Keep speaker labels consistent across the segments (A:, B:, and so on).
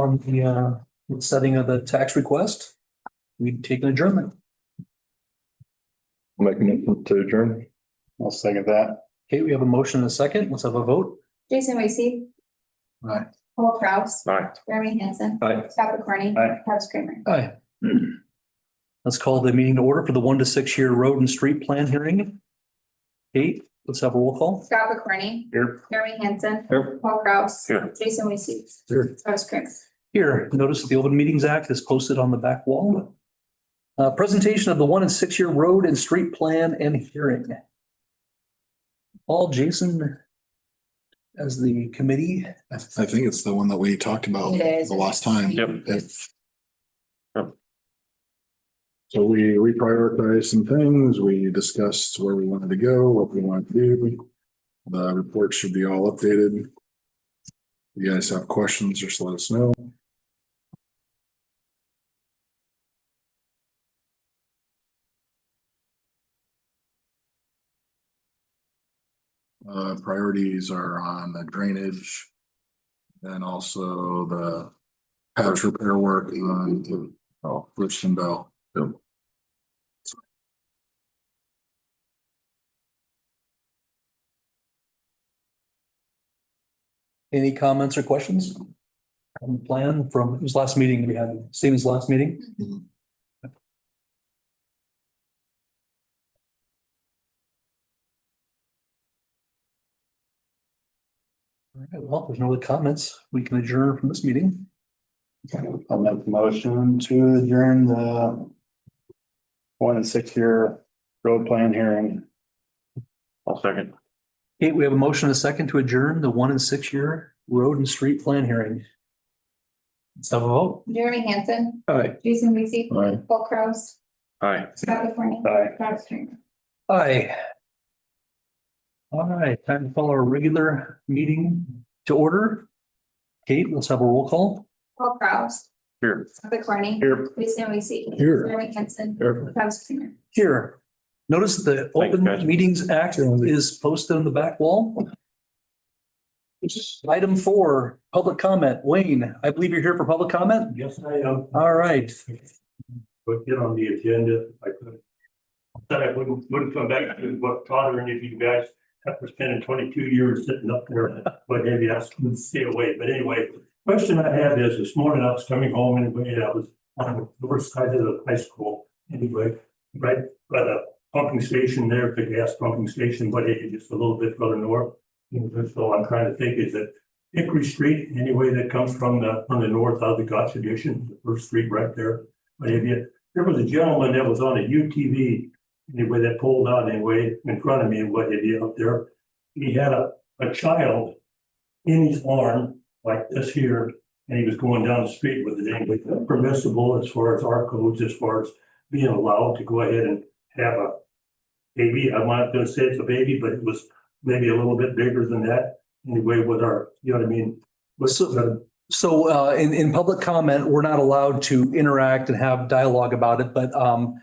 A: on the uh, setting of the tax request, we take an adjournment.
B: Make a motion to adjourn. I'll second that.
A: Okay, we have a motion and a second. Let's have a vote.
C: Jason Weasey.
B: Aye.
C: Paul Kraus.
B: Aye.
C: Jeremy Hansen.
B: Aye.
C: Scott McCorney.
B: Aye.
C: Travis Kramer.
A: Aye. Let's call the meeting to order for the one to six year road and street plan hearing. Kate, let's have a roll call.
C: Scott McCorney.
B: Here.
C: Jeremy Hansen.
B: Here.
C: Paul Kraus.
B: Here.
C: Jason Weasey.
A: Here.
C: Travis Kramer.
A: Here, notice the Open Meetings Act is posted on the back wall. Uh, presentation of the one and six year road and street plan and hearing. All Jason as the committee.
D: I I think it's the one that we talked about
C: It is.
D: the last time.
B: Yep.
D: If- So we reprioritized some things. We discussed where we wanted to go, what we wanted to do. The report should be all updated. You guys have questions, just let us know. Uh, priorities are on the drainage. And also the patch repair work on, oh, Richardson Bell.
A: Any comments or questions? On the plan from, it was last meeting we had, Stephen's last meeting.
D: Mhm.
A: All right, well, if there's no other comments. We can adjourn from this meeting.
B: I'll make the motion to adjourn the one and six year road plan hearing. I'll second.
A: Kate, we have a motion and a second to adjourn the one and six year road and street plan hearing. Let's have a vote.
C: Jeremy Hansen.
A: Aye.
C: Jason Weasey.
D: All right,
C: Paul Kraus.
B: Aye.
C: Scott McCorney.
B: Aye.
C: Travis Kramer.
A: Aye. All right, time to call our regular meeting to order. Kate, let's have a roll call.
C: Paul Kraus.
B: Here.
C: Scott McCorney.
B: Here.
C: Jason Weasey.
D: here.
C: Jeremy Hansen.
D: here.
C: Travis Kramer.
A: Here, notice the
B: Thanks,
A: Open
B: guys.
A: Meetings Act is posted on the back wall. Item four, public comment. Wayne, I believe you're here for public comment?
E: Yes, I am,
A: All right.
E: but get on the agenda, if I could. Said I wouldn't, wouldn't come back to what Todd or any of you guys, after spending twenty-two years sitting up there, what have you, asked me to stay away, but anyway. Question I have is, this morning I was coming home and when I was on the north side of the high school, anyway, right by the pumping station there, the gas pumping station, but it just a little bit further north. And that's all I'm trying to think is that Hickory Street, any way that comes from the, from the north out of the Constitution, the first street right there. But if you, there was a gentleman that was on a UTV, anyway, that pulled out anyway in front of me, and what have you up there. He had a, a child in his arm like this here, and he was going down the street with it anyway, permissible as far as our codes, as far as being allowed to go ahead and have a baby. I'm not gonna say it's a baby, but it was maybe a little bit bigger than that anyway with our, you know what I mean? With
A: So-
E: the
A: So uh, in, in public comment, we're not allowed to interact and have dialogue about it, but um,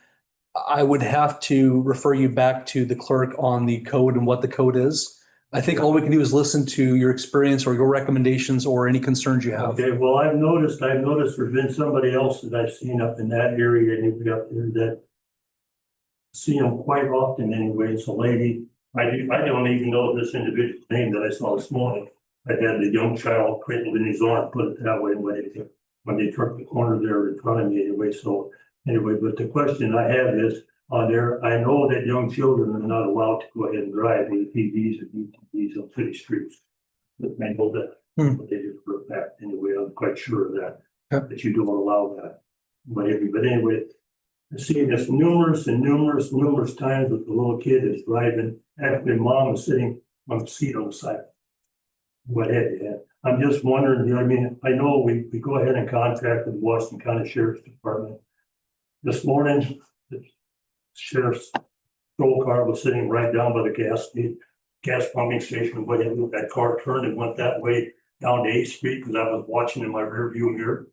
A: I would have to refer you back to the clerk on the code and what the code is. I think all we can do is listen to your experience or your recommendations or any concerns you have.
E: Okay, well, I've noticed, I've noticed there's been somebody else that I've seen up in that area anyway up there that see them quite often anyway. It's a lady. I do, I don't even know this individual name that I saw this morning. I had the young child cradled in his arm, put it that way, when they, when they turned the corner there in front of me anyway, so anyway, but the question I have is, on there, I know that young children are not allowed to go ahead and drive ATVs and UTVs on city streets. But I know that what they did for that anyway, I'm quite sure of that.
A: Yep.
E: That you don't allow that. But anyway, but anyway, I've seen this numerous and numerous, numerous times with the little kid is driving, actually mom is sitting on the seat on the side. What have you had? I'm just wondering, you know, what I mean, I know we, we go ahead and contract with Washington County Sheriff's Department. This morning, the sheriff's patrol car was sitting right down by the gas, the gas pumping station, but it- that car turned and went that way down to Eighth Street because I was watching in my rearview mirror.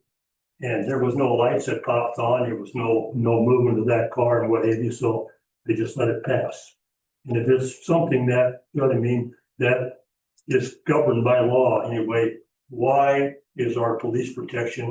E: And there was no lights that popped on, there was no, no movement of that car and what have you, so they just let it pass. And if it's something that, you know what I mean, that is governed by law anyway, why is our police protection